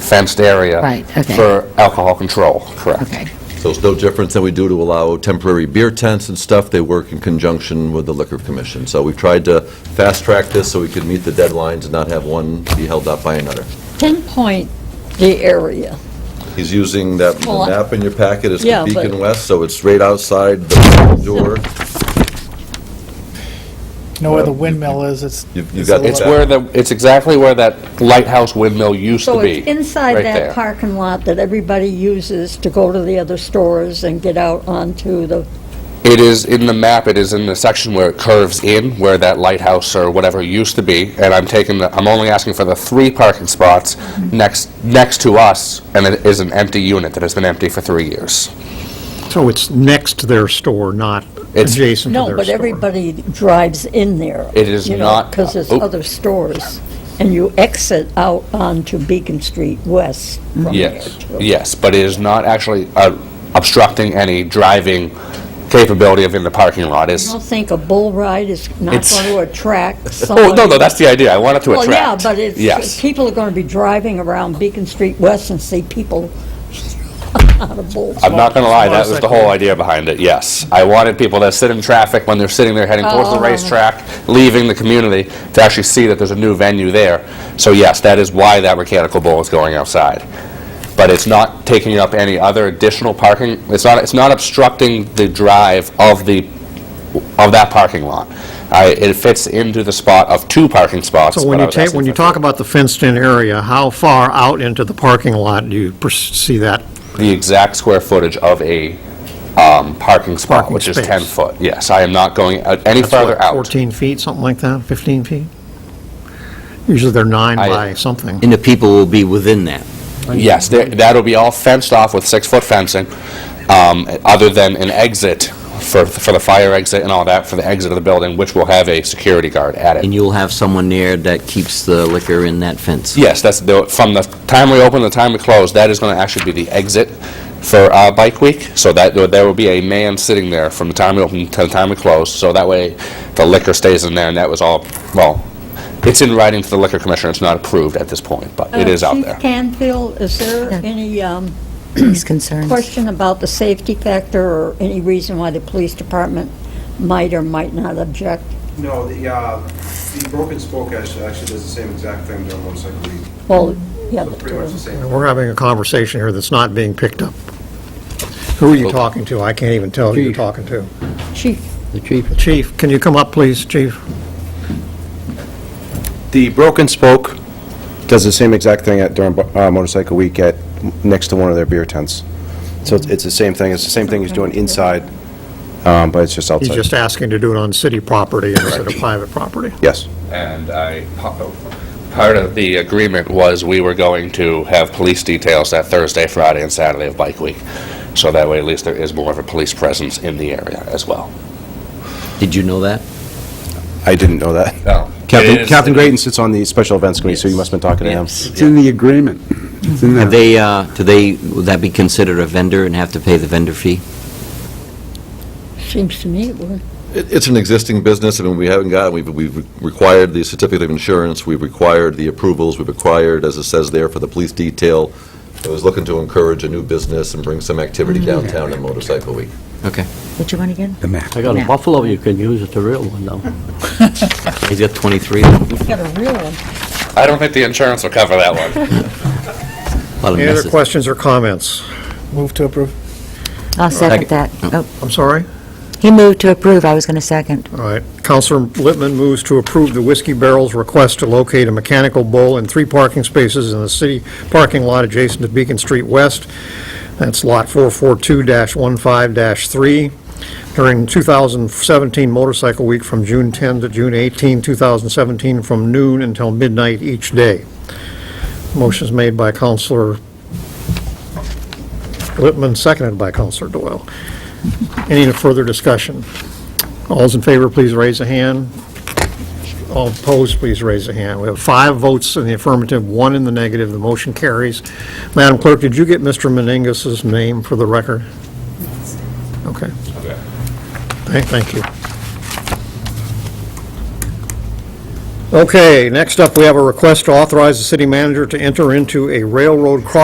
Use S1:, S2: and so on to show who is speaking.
S1: fenced area.
S2: Right, okay.
S1: For alcohol control, correct.
S2: Okay,
S3: So it's no different than we do to allow temporary beer tents and stuff. They work in conjunction with the Liquor Commission. So we've tried to fast-track this so we could meet the deadlines and not have one be held up by another.
S4: pinpoint the area.
S3: He's using that
S4: Well, I-
S3: map in your packet, it's
S4: Yeah,
S3: Beacon
S4: but-
S3: West, so it's right outside the door.
S5: Know where the windmill is, it's.
S3: You've- you've got
S5: a
S3: the
S1: It's
S5: little-
S3: back.
S1: where the, it's exactly where that lighthouse windmill used to
S4: So
S1: be.
S4: it's inside
S1: right
S4: that
S1: there.
S4: parking lot that everybody uses to go to the other stores and get out onto the,
S1: It is in the map, it is in the section where it curves in, where that lighthouse or whatever used to be, and I'm taking the, I'm only asking for the three parking spots next, next to us, and it is an empty unit that has been empty for three years.
S6: So it's next to their store, not
S1: It's-
S6: adjacent to their
S4: no,
S6: store?
S4: but everybody drives in there.
S1: It is not-
S4: Because there's
S1: oh.
S4: other stores, and you exit out onto Beacon Street West from there.
S1: Yes,
S4: too.
S1: yes, but it is not actually uh, obstructing any driving capability of in the parking lot,
S4: I
S1: is,
S4: don't think a bull ride is not
S1: It's-
S4: going to attract someone.
S1: oh, no, no, that's the idea, I want it to
S4: Well,
S1: attract.
S4: yeah, but it's,
S1: Yes,
S4: people are going to be driving around Beacon Street West and see people on a bull.
S1: I'm not gonna lie, that was the whole
S5: Motorcycle.
S1: idea behind it, yes. I wanted people that sit in traffic when they're sitting there heading towards the
S4: Oh.
S1: racetrack, leaving the community, to actually see that there's a new venue there. So yes, that is why that mechanical bull is going outside. But it's not taking up any other additional parking, it's not, it's not obstructing the drive of the, of that parking lot. I, it fits into the spot of two parking spots.
S6: So when
S1: but I
S6: you
S1: was
S6: take,
S1: asking
S6: when you
S1: for
S6: talk about the fenced-in area, how far out into the parking lot do you pers- see that?
S1: the exact square footage of a um, parking spot,
S6: Parking
S1: which is
S6: space.
S1: 10 foot. Yes, I am not going out any
S6: That's what,
S1: further out.
S6: 14 feet, something like that, 15 feet? Usually they're nine
S1: I-
S6: by something.
S7: And the people will be within that.
S1: Yes, there- that'll be all fenced off with six-foot fencing, um, other than an exit for for the fire exit and all that, for the exit of the building, which will have a security guard at it.
S7: And you'll have someone there that keeps the liquor in that fence.
S1: Yes, that's, the- from the time we open to the time we close, that is going to actually be the exit for uh, Bike Week. So that, there will be a man sitting there from the time we open to the time we close, so that way the liquor stays in there, and that was all, well, it's in writing to the liquor commissioner, it's not approved at this point, but it is out
S4: Uh, Chief
S1: there.
S4: Canfield, is there
S2: Yeah.
S4: any um,
S2: these concerns.
S4: question about the safety factor or any reason why the police department might or might not object?
S8: No, the, uh, the broken spoke actually actually does the same exact thing during motorcycle week.
S4: Well, yeah,
S8: So
S4: but uh,
S8: pretty much the same.
S6: We're having a conversation here that's not being picked up. Who are you talking to? I can't even tell who you're talking to.
S4: uh, chief,
S7: The chief
S6: Chief, can you come up, please, chief?
S9: The broken spoke does the same exact thing at during uh, motorcycle week at, next to one of their beer tents. So it's it's the same thing, it's the same thing he's doing inside, um, but it's just
S6: He's
S9: outside.
S6: just asking to do it on city property instead of private property.
S9: Yes.
S1: and I, part of the agreement was we were going to have police details that Thursday, Friday, and Saturday of Bike Week. So that way, at least there is more of a police presence in the area as well.
S7: Did you know that?
S9: I didn't know that. Captain Captain Grayton sits on the special events committee, so you must have been talking to him.
S10: It's in the agreement. It's in there.
S7: Have they, uh, do they, would that be considered a vendor and have to pay the vendor fee?
S4: seems to me it would.
S3: It- It's an existing business, I mean, we haven't got, we've, we've required the certificate of insurance, we've required the approvals, we've required, as it says there, for the police detail. I was looking to encourage a new business and bring some activity
S4: Mm-hmm.
S3: downtown in Motorcycle Week.
S7: Okay.
S2: What you want again?
S10: The map.
S11: I got
S2: No.
S11: a buffalo, you can use it, the real one, though.
S7: He's got 23, a
S4: We've got a real one.
S1: I don't think the insurance will cover that one.
S7: lot of
S6: Any other
S7: messes.
S6: questions or comments?
S5: Move to approve.
S2: I'll second that. Oh,
S6: I'm sorry?
S2: He moved to approve, I was going to second.
S6: All right. Counselor Littman moves to approve the Whiskey Barrel's request to locate a mechanical bull in three parking spaces in the city parking lot adjacent to Beacon Street West. That's Lot 442-15-3. During 2017 Motorcycle Week from June 10 to June 18, 2017, from noon until midnight each day. Motion's made by Counselor Littman, seconded by Counselor Doyle. Any further discussion? All's in favor, please raise a hand. All opposed, please raise a hand. We have five votes in the affirmative, one in the negative. The motion carries. Madam Clerk, did you get Mr. Meningus's name for the record? Okay. Thank thank you. Okay, next up, we have a request to authorize the city manager to enter into a railroad crossing